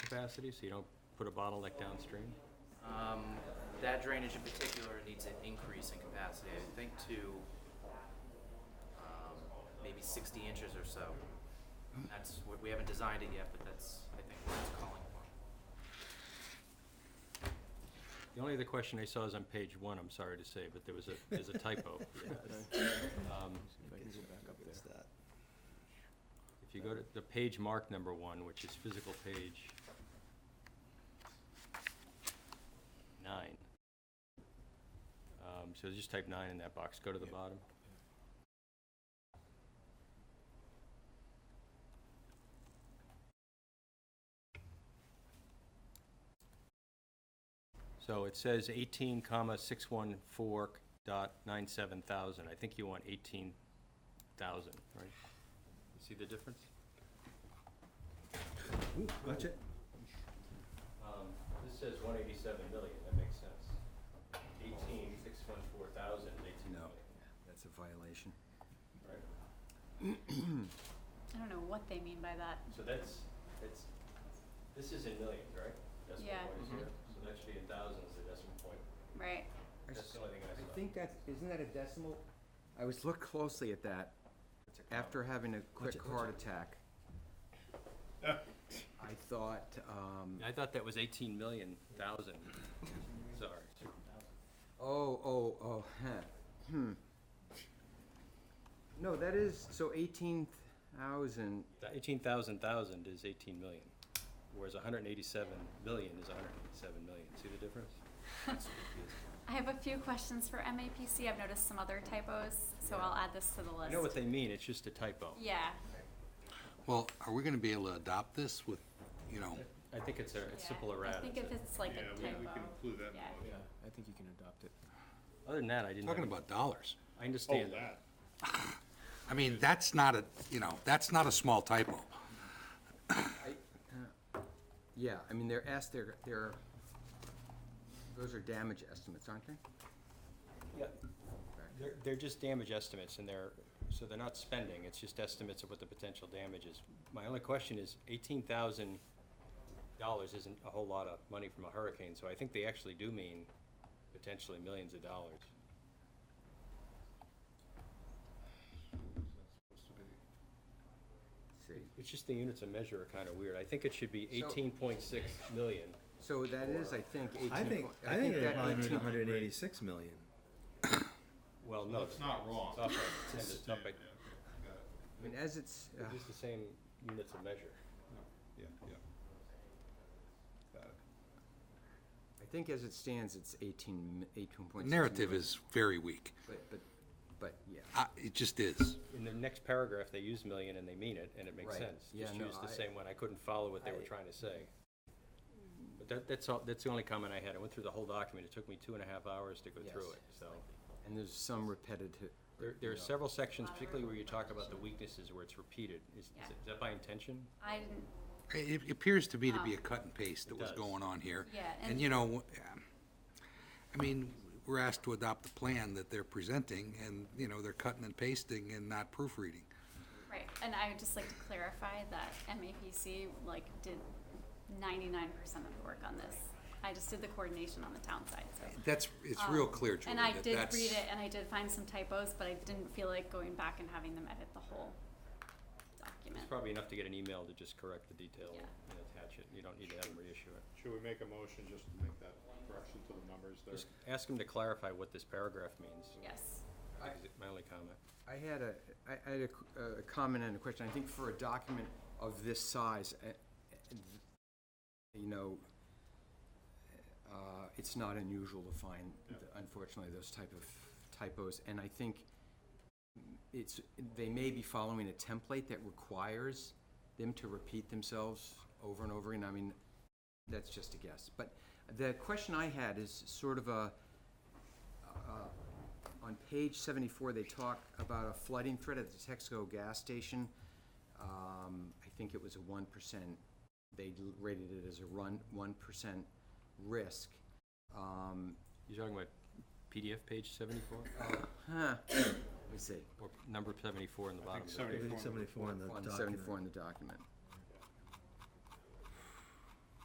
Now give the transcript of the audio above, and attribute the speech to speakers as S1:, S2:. S1: capacity, so you don't put a bottleneck downstream?
S2: Um, that drainage in particular needs an increase in capacity, I think to, um, maybe sixty inches or so. That's, what- we haven't designed it yet, but that's, I think, what it's calling for.
S1: The only other question I saw is on page one, I'm sorry to say, but there was a, there's a typo. Um,
S3: If I can go back up there.
S1: If you go to the page mark number one, which is physical page nine. Um, so just type nine in that box, go to the
S3: Yep.
S1: bottom. So it says eighteen comma six one four dot nine seven thousand, I think you want eighteen thousand, right? You see the difference?
S3: Ooh, watch it.
S1: Um, this says one eighty-seven million, that makes sense. Eighteen, six one four thousand, eighteen
S3: No.
S1: million.
S3: That's a violation.
S1: Right.
S4: I don't know what they mean by that.
S1: So that's, that's, this is in millions, right? Decimal
S4: Yeah. Mm-hmm.
S1: point
S2: Mhm.
S1: zero. So that should be in thousands, the decimal point.
S4: Right.
S3: I
S1: That's
S3: s-
S1: the only thing I saw.
S3: I think that's, isn't that a decimal? I was look closely at that after having a quick heart attack. I thought, um,
S1: I thought that was eighteen million thousand. Sorry.
S3: oh, oh, oh, huh, hmm. No, that is, so eighteen thousand,
S1: Eighteen thousand thousand is eighteen million, whereas hundred and eighty-seven million is hundred and eighty-seven million. See the difference?
S4: I have a few questions for MAPC. I've noticed some other typos, so I'll add this to the
S1: I
S4: list.
S1: know what they mean, it's just a typo.
S4: yeah.
S5: Well, are we gonna be able to adopt this with, you know,
S1: I think it's a, it's simple errata.
S4: I think if it's like a typo.
S6: Yeah, we, we can include that in
S4: yeah.
S6: the motion.
S3: I think you can adopt it.
S1: Other than that, I didn't. have
S5: talking
S1: any-
S5: about dollars?
S1: I understand
S6: Oh,
S1: that.
S6: that.
S5: I mean, that's not a, you know, that's not a small typo.
S3: Yeah, I mean, they're asked, they're, they're, those are damage estimates, aren't they?
S1: Yeah. They're, they're just damage estimates and they're, so they're not spending, it's just estimates of what the potential damage is. My only question is eighteen thousand dollars isn't a whole lot of money from a hurricane, so I think they actually do mean potentially millions of dollars.
S3: See,
S1: It's just the units of measure are kind of weird. I think it should be
S3: So-
S1: eighteen point six million.
S3: so that is, I think, eighteen.
S7: I think,
S3: point-
S7: I think
S3: that
S7: they're probably
S3: 18
S7: hundred and eighty-six million.
S1: Well, no,
S6: That's
S1: it's
S6: not wrong.
S1: up by ten,
S6: It's
S1: it's up by,
S6: standard, yeah, okay, got it.
S3: I mean, as it's, uh,
S1: it's the same units of measure.
S6: Yeah, yeah. Got it.
S3: I think as it stands, it's 18, 18.6.
S5: Narrative
S3: million,
S5: is very weak.
S3: But, but, but, yeah.
S5: Uh, it just is.
S1: In the next paragraph, they use million and they mean it, and it makes
S3: Right.
S1: sense.
S3: Yeah,
S1: Just
S3: no,
S1: use the
S3: I-
S1: same one, I couldn't follow what they were
S3: I-
S1: trying to say. But that, that's all, that's the only comment I had, I went through the whole document, it took me two and a half hours to go through
S3: Yes.
S1: it, so.
S3: And there's some repetitive.
S1: There, there are several sections, particularly where you talk about the weaknesses where it's repeated, is, is
S4: Yeah.
S1: it- is that by intention?
S4: I didn't.
S5: It it appears to me to be a cut and paste that was
S1: does.
S5: going on here.
S4: Yeah, and-
S5: And, you know, um, I mean, we're asked to adopt the plan that they're presenting, and, you know, they're cutting and pasting and not proofreading.
S4: Right. And I would just like to clarify that MAPC like did 99% of the work on this. I just did the coordination on the town side. So.
S5: That's, it's real
S4: Um,
S5: clear, Julie,
S4: And I
S5: that
S4: did
S5: that's-
S4: read it, and I did find some typos, but I didn't feel like going back and having them edit the whole
S1: It's
S4: document.
S1: probably enough to get an email to just correct the detail
S4: Yeah.
S1: and attach it, you don't need to have them reissue it.
S6: Should we make a motion just to make that correction to the numbers there?
S1: Just ask them to clarify what this paragraph means,
S4: Yes.
S1: is my only comment.
S3: I had a, I I had a qu- a, a comment and a question. I think for a document of this size, eh, eh, th- you know, uh, it's not unusual to find, unfortunately, those type of typos. And I think it's, they may be following a template that requires them to repeat themselves over and over again. I mean, that's just a guess. But the question I had is sort of a, on page seventy-four, they talk about a flooding threat at the Texaco gas station. Um, I think it was a one percent, they l- rated it as a run, one percent risk. Um,
S1: You're talking about PDF page seventy-four,
S3: huh, let me see,
S1: or number seventy-four in the
S6: I
S1: bottom?
S6: think
S1: of it?
S7: I think
S6: 74.
S7: seventy-four in the
S3: on
S7: document.
S3: seventy-four in the document.